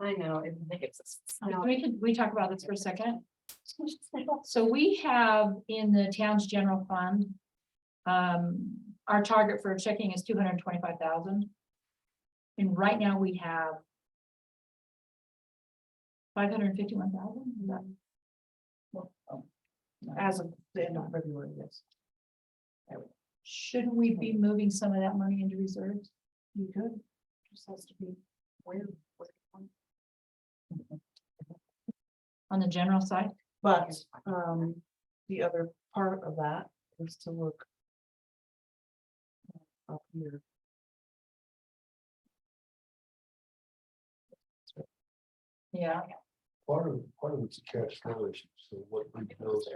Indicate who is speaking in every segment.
Speaker 1: I know, it makes us.
Speaker 2: Can We could, we talk about this for a second. So we have in the town's general fund. Um, our target for checking is two hundred and twenty-five thousand. And right now we have. Five hundred and fifty-one thousand. As of the end of February, yes. There we go. Should we be moving some of that money into reserves? You could. Just has to be where. On the general side?
Speaker 3: But, um, the other part of that is to look. Up here.
Speaker 2: Yeah.
Speaker 4: Part of, part of it's a cash flow issue, so what we know is.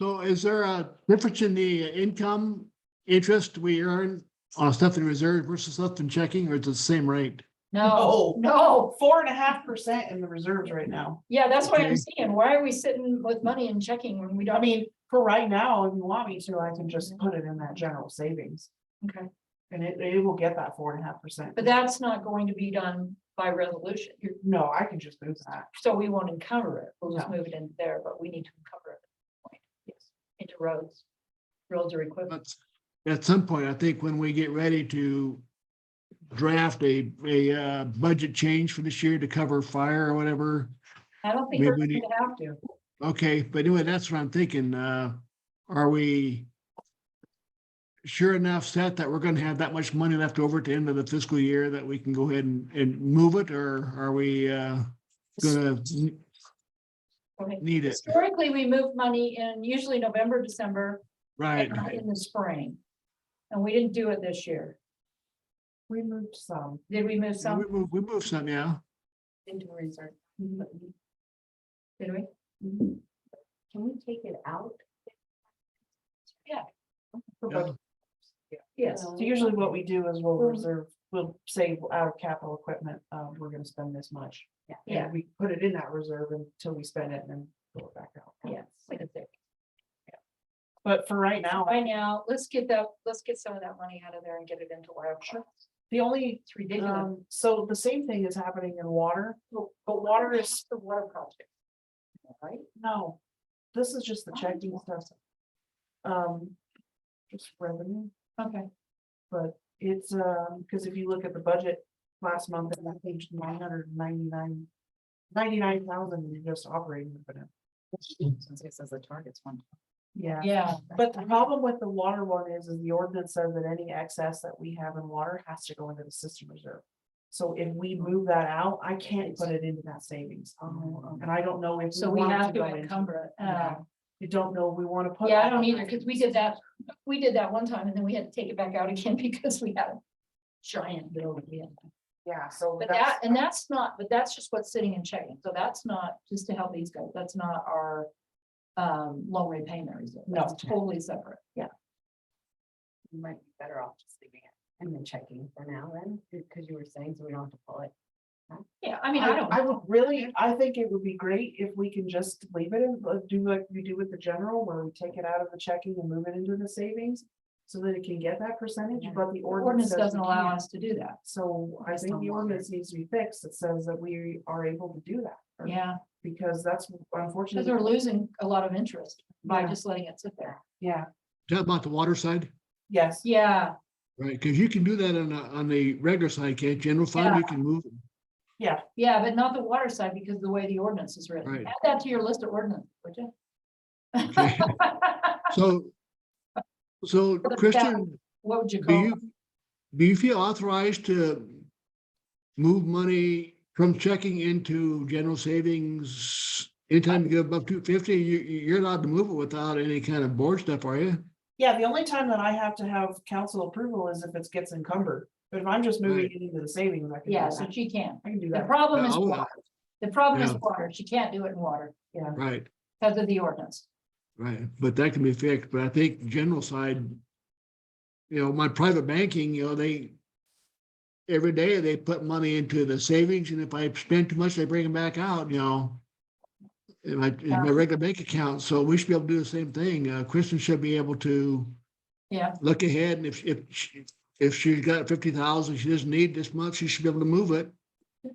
Speaker 5: So is there a difference in the income interest we earn on stuff in reserve versus stuff in checking, or it's the same rate?
Speaker 2: No,
Speaker 3: No.
Speaker 2: no,
Speaker 3: Four and a half percent in the reserves right now.
Speaker 2: yeah, that's what I'm
Speaker 5: Okay.
Speaker 2: saying. Why are we sitting with money and checking when we don't?
Speaker 3: I mean, for right now, if you want me to, I can just put it in that general savings
Speaker 2: Okay,
Speaker 3: and it, it will get that four and a half percent.
Speaker 2: but that's not going to be done by resolution,
Speaker 3: No, I can just move that.
Speaker 2: so we won't encounter it. We'll just
Speaker 3: No.
Speaker 2: move it in there, but we need to uncover it. Yes, Into roads, roads or equipment.
Speaker 5: But at some point, I think when we get ready to draft a, a uh, budget change for this year to cover fire or whatever.
Speaker 2: I don't think we're
Speaker 5: Maybe
Speaker 2: gonna
Speaker 5: we
Speaker 2: have to.
Speaker 5: Okay, but anyway, that's what I'm thinking. Uh, are we sure enough set that we're gonna have that much money left over at the end of the fiscal year that we can go ahead and, and move it, or are we, uh, gonna n-
Speaker 2: Okay.
Speaker 5: need it?
Speaker 2: Historically, we move money in usually November, December,
Speaker 5: Right,
Speaker 2: and in the spring. And we didn't do it this year.
Speaker 3: We moved some.
Speaker 2: Did we move
Speaker 5: we
Speaker 2: some
Speaker 5: move, we move some, yeah.
Speaker 1: Into reserve.
Speaker 2: Mm-hmm. Did we? Mm-hmm.
Speaker 1: Can we take it out?
Speaker 3: for
Speaker 5: Yeah.
Speaker 3: budget.
Speaker 2: Yes.
Speaker 3: So usually what we do is we'll reserve, we'll save out of capital equipment, uh, we're gonna spend this much. And
Speaker 2: Yeah.
Speaker 3: We put it in that reserve until we spend it and then pull it back out.
Speaker 2: Yes.
Speaker 3: But for right now,
Speaker 2: Right now, let's get that, let's get some of that money out of there and get it into wild. Sure.
Speaker 3: the Oh, only,
Speaker 2: It's ridiculous.
Speaker 3: um, so the same thing is happening in water. But water is,
Speaker 2: The water project.
Speaker 3: no, Oh, this is just the checking stuff. Um, just revenue,
Speaker 2: Okay,
Speaker 3: but it's, um, because if you look at the budget last month, and that page nine hundred ninety-nine. Ninety-nine thousand, you're just operating. revenue.
Speaker 1: Since it says the target's one.
Speaker 3: Yeah.
Speaker 2: yeah,
Speaker 3: But the problem with the water one is, is the ordinance says that any excess that we have in water has to go into the system reserve. So if we
Speaker 2: Mm-hmm.
Speaker 3: move that out, I can't put it into that savings.
Speaker 1: Oh,
Speaker 3: And I don't know if.
Speaker 2: so we
Speaker 3: want it
Speaker 2: have to
Speaker 3: go in.
Speaker 2: encumber it. Uh,
Speaker 3: Yeah. You don't know, we want to put.
Speaker 2: Yeah, I
Speaker 3: that
Speaker 2: don't
Speaker 3: in.
Speaker 2: either, because we did that, we did that one time and then we had to take it back out again because we had a giant bill. that we had.
Speaker 3: Yeah, so.
Speaker 2: But
Speaker 3: that's-
Speaker 2: that, and that's not, but that's just what's sitting and checking. So that's not just to help these guys. That's not our um, loan repayment reserve.
Speaker 3: No.
Speaker 2: That's totally separate. Yeah.
Speaker 1: You might be better off just leaving it and then checking for now then, because you were saying, so we don't have to pull it.
Speaker 2: Yeah, I mean, I
Speaker 3: I,
Speaker 2: don't.
Speaker 3: I would really, I think it would be great if we can just leave it in, but do like we do with the general, where we take it out of the checking and move it into the savings. So that it can get that percentage,
Speaker 1: Yeah.
Speaker 3: but the
Speaker 2: The
Speaker 3: ordinance.
Speaker 2: Ordinance
Speaker 3: says
Speaker 2: doesn't
Speaker 3: we
Speaker 2: allow
Speaker 3: can't.
Speaker 2: us to do that.
Speaker 3: So I
Speaker 1: Based
Speaker 3: think
Speaker 1: on
Speaker 3: the
Speaker 1: what?
Speaker 3: ordinance needs to be fixed. It says that we are able to do that. or-
Speaker 2: Yeah,
Speaker 3: Because that's
Speaker 2: because we're
Speaker 3: unfortunately,
Speaker 2: losing a lot of interest by
Speaker 3: Yeah.
Speaker 2: just letting it sit there.
Speaker 3: yeah,
Speaker 5: Talk about the water side,
Speaker 3: yes,
Speaker 2: Yeah,
Speaker 5: right? Because you can do that on, a- on the regular side, can't you? general fund, you can move. it.
Speaker 3: yeah,
Speaker 2: yeah, but not the water side because of the way the ordinance is written.
Speaker 5: Right.
Speaker 2: Add that to your list of ordinance, would you?
Speaker 5: Okay. So, so
Speaker 2: the
Speaker 5: Christian,
Speaker 2: What would you
Speaker 5: do
Speaker 2: call? it?
Speaker 5: you, do you feel authorized to move money from checking into general savings? Anytime you get above two fifty, you, you're allowed to move it without any kind of board stuff, are you?
Speaker 3: yeah. The only time that I have to have council approval is if it gets encumbered. But if I'm just moving
Speaker 5: Right.
Speaker 3: it into the savings, I can. do
Speaker 2: Yeah, so
Speaker 3: that.
Speaker 2: she can.
Speaker 3: I can do
Speaker 2: The
Speaker 3: that.
Speaker 2: problem is
Speaker 5: Yeah, I'll-
Speaker 2: water. The problem is
Speaker 5: Yeah.
Speaker 2: water. She can't do it in water
Speaker 5: Right,
Speaker 2: because of the ordinance.
Speaker 5: right. But that can be fixed, but I think general side, you know, my private banking, you know, they every day they put money into the savings and if I spend too much, they bring them back out, you know. In my, in my
Speaker 2: Yeah.
Speaker 5: regular bank account, so we should be able to do the same thing. Uh, Kristen should be able to
Speaker 2: Yeah,
Speaker 5: look ahead and if, if, she- if she's got fifty thousand, she doesn't need this much, she should be able to move it.